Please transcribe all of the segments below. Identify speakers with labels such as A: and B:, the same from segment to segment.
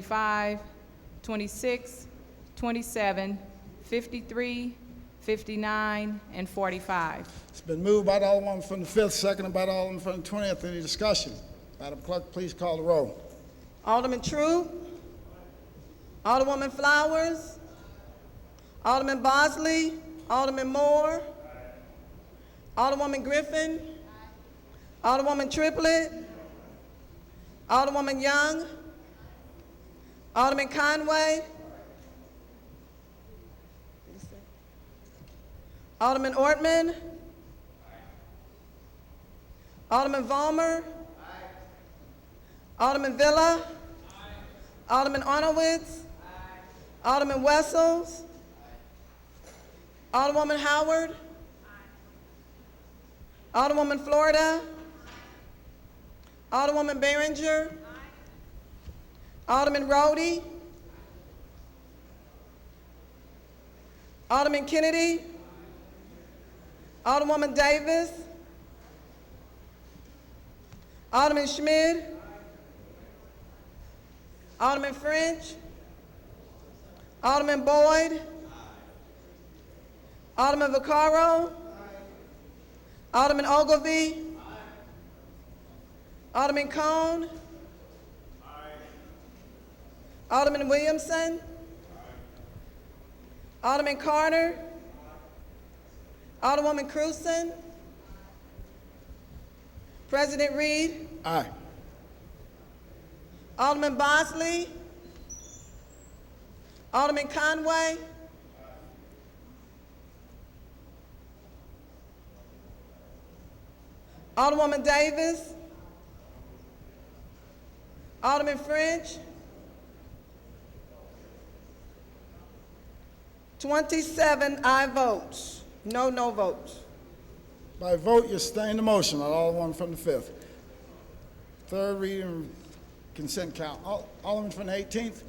A: 25, 26, 27, 53, 59, and 45.
B: It's been moved by the Alderman from the 5th, seconded by the Alderman from the 20th. Any discussion? Madam Clerk, please call the roll.
C: Alderman True. Alderwoman Flowers. Alderman Bosley. Alderman Moore. Alderwoman Griffin. Alderwoman Triplett. Alderwoman Young. Alderman Conway. Alderman Ortman. Alderman Vollmer. Alderman Villa. Alderman Arnowitz. Alderman Wessels. Alderwoman Howard. Alderwoman Florida. Alderwoman Behringer. Alderman Rhodey. Alderman Kennedy. Alderwoman Davis. Alderman Schmidt. Alderman French. Alderman Boyd. Alderman Vaccaro. Alderman Ogilvy. Alderman Cone. Alderman Williamson. Alderman Carter. Alderwoman Cruzen. President Reed.
B: Aye.
C: Alderman Bosley. Alderman Conway. Alderwoman Davis. Alderman French. 27 I votes, no no votes.
B: By vote, you sustain the motion, Alderman from the 5th. Third reading consent count. Al- Alderman from the 18th?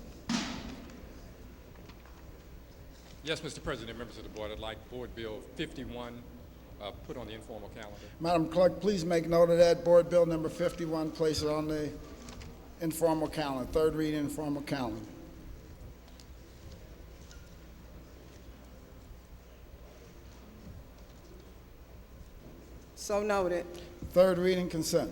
D: Yes, Mr. President, members of the board, I'd like Board Bill 51 uh, put on the informal calendar.
B: Madam Clerk, please make note of that. Board Bill Number 51, place it on the informal calendar, third reading informal calendar.
C: So noted.
B: Third reading consent.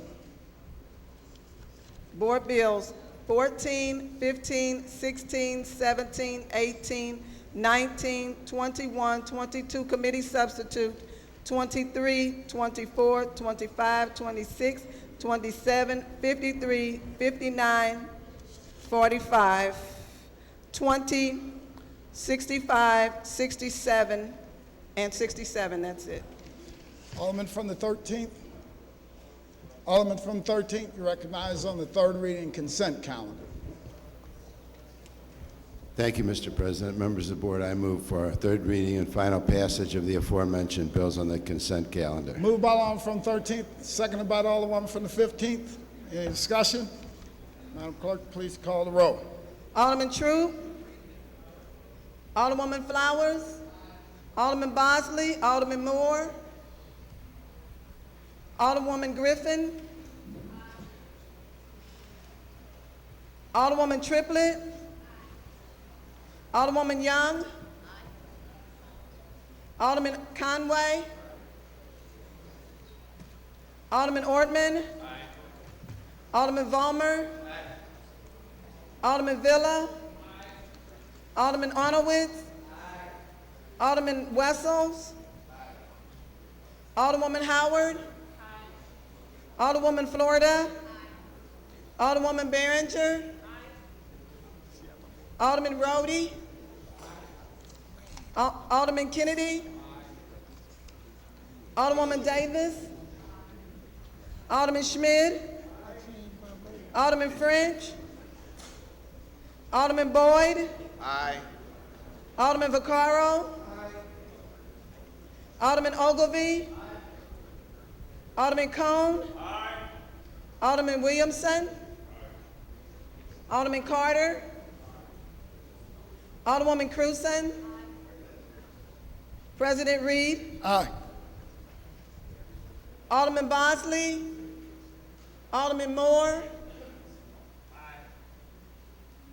C: Board Bills 14, 15, 16, 17, 18, 19, 21, 22, Committee Substitute, 23, 24, 25, 26, 27, 53, 59, 45, 20, 65, 67, and 67, that's it.
B: Alderman from the 13th? Alderman from the 13th, you recognize on the third reading consent calendar.
E: Thank you, Mr. President. Members of the board, I move for a third reading and final passage of the aforementioned bills on the consent calendar.
B: Moved by Alderman from 13th, seconded by Alderman from the 15th. Any discussion? Madam Clerk, please call the roll.
C: Alderman True. Alderwoman Flowers. Alderman Bosley. Alderman Moore. Alderwoman Griffin. Alderwoman Triplett. Alderwoman Young. Alderman Conway. Alderman Ortman. Alderman Vollmer. Alderman Villa. Alderman Arnowitz. Alderman Wessels. Alderwoman Howard. Alderwoman Florida. Alderwoman Behringer. Alderman Rhodey. Al- Alderman Kennedy. Alderwoman Davis. Alderman Schmidt. Alderman French. Alderman Boyd. Aye. Alderman Vaccaro. Alderman Ogilvy. Alderman Cone. Aye. Alderman Williamson. Alderman Carter. Alderwoman Cruzen. President Reed.
B: Aye.
C: Alderman Bosley. Alderman Moore.